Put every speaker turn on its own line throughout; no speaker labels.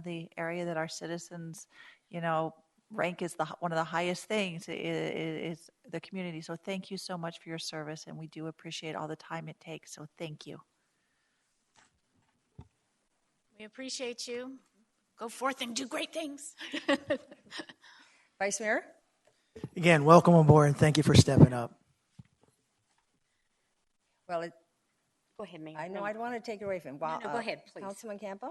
the area that our citizens, you know, rank as the one of the highest things is, is the community. So thank you so much for your service, and we do appreciate all the time it takes. So thank you.
We appreciate you. Go forth and do great things.
Vice Mayor?
Again, welcome aboard and thank you for stepping up.
Well, it-
Go ahead, Mayor.
I know
No,
I'd want to take it away from. uh,
No, no, go ahead, please.
Councilman Campo?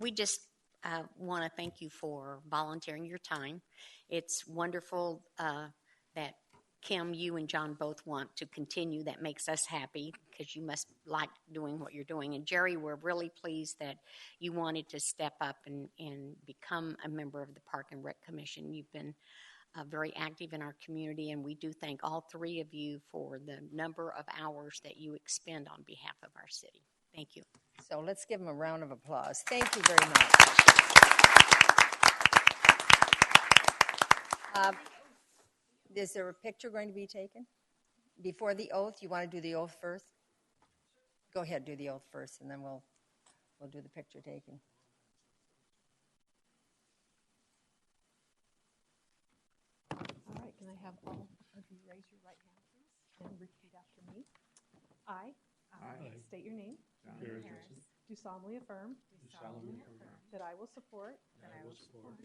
We just uh, want to thank you for volunteering your time. It's wonderful uh, that Kim, you and John both want to continue. That makes us happy because you must like doing what you're doing. And Jerry, we're really pleased that you wanted to step up and, and become a member of the Park and Rec Commission. You've been uh, very active in our community, and we do thank all three of you for the number of hours that you expend on behalf of our city. Thank you.
So let's give him a round of applause. Thank you very much. Um, Is there a picture going to be taken? Before the oath, you want to do the oath first? Go ahead, do the oath first, and then we'll, we'll do the picture taking.
All right, can I have all of you raise your right hand, please, and repeat after me? I um, state your name. Do solemnly affirm. That I will support.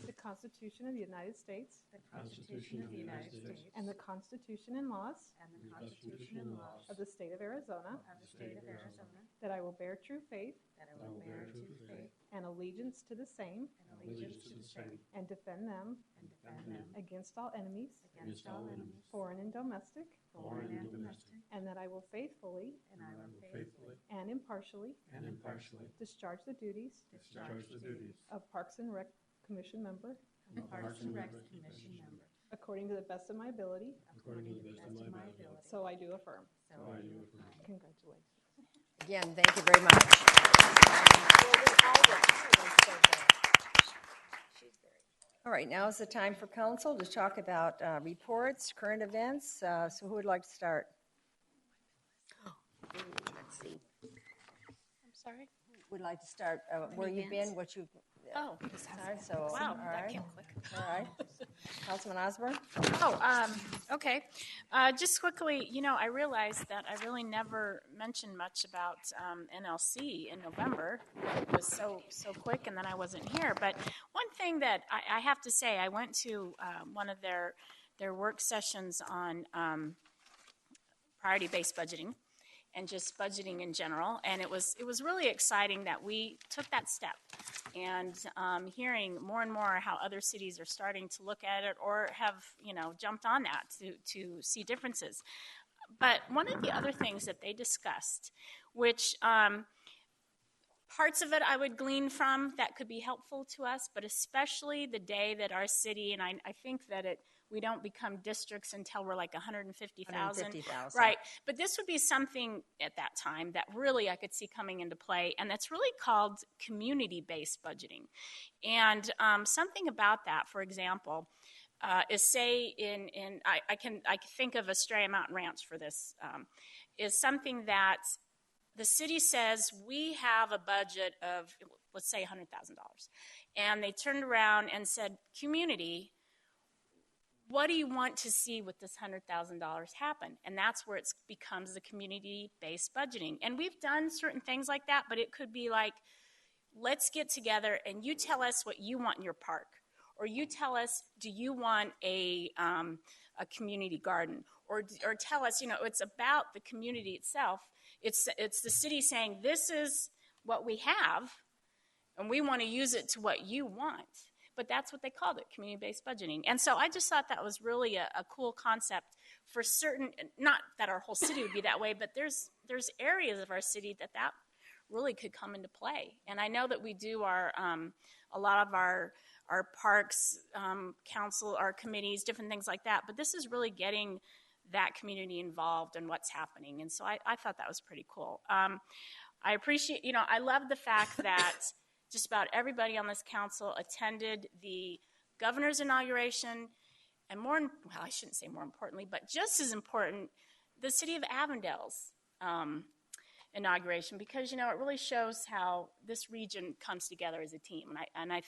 The Constitution of the United States. And the Constitution and laws. Of the state of Arizona. That I will bear true faith. And allegiance to the same. And defend them. Against all enemies. Foreign and domestic. And that I will faithfully. And impartially. Discharge the duties. Of Parks and Rec Commission member. According to the best of my ability. So I do affirm. Congratulations.
Again, thank you very much. All right, now is the time for council to talk about uh, reports, current events. Uh, So who would like to start?
Let's see.
I'm sorry.
Would like to start uh, where you've been,
events?
what you've,
Oh,
Sorry, so, all
wow, that
right,
came quick.
all right. Councilman Osborne?
Oh, um, okay. Uh, just quickly, you know, I realized that I really never mentioned much about um, NLC in November. It was so so quick, and then I wasn't here. But one thing that I, I have to say, I went to uh, one of their their work sessions on um, priority based budgeting and just budgeting in general. And it was it was really exciting that we took that step and um, hearing more and more how other cities are starting to look at it or have you know jumped on that to to see differences. But one of the other things that they discussed, which um, parts of it I would glean from that could be helpful to us, but especially the day that our city, and I, I think that it, we don't become districts until we're like 150,000.
150,000.
Right. But this would be something at that time that really I could see coming into play, and that's really called community based budgeting. And um, something about that, for example, uh, is say in in I, I can I can think of Estrella Mountain Ranch for this um, is something that the city says we have a budget of let's say $100,000 and they turned around and said community what do you want to see with this $100,000 happen? And that's where it becomes the community based budgeting. And we've done certain things like that, but it could be like, let's get together and you tell us what you want in your park. Or you tell us, do you want a, um, a community garden? Or, or tell us, you know, it's about the community itself. It's, it's the city saying, this is what we have, and we want to use it to what you want. But that's what they called it, community based budgeting. And so I just thought that was really a, a cool concept for certain, not that our whole city would be that way, but there's, there's areas of our city that that really could come into play. And I know that we do our, um, a lot of our, our parks, um, council, our committees, different things like that, but this is really getting that community involved and what's happening. And so I, I thought that was pretty cool. Um, I appreciate, you know, I love the fact that just about everybody on this council attended the governor's inauguration, and more, im- well, I shouldn't say more importantly, but just as important, the city of Avondale's um, inauguration because you know it really shows how this region comes together as a team, and I and I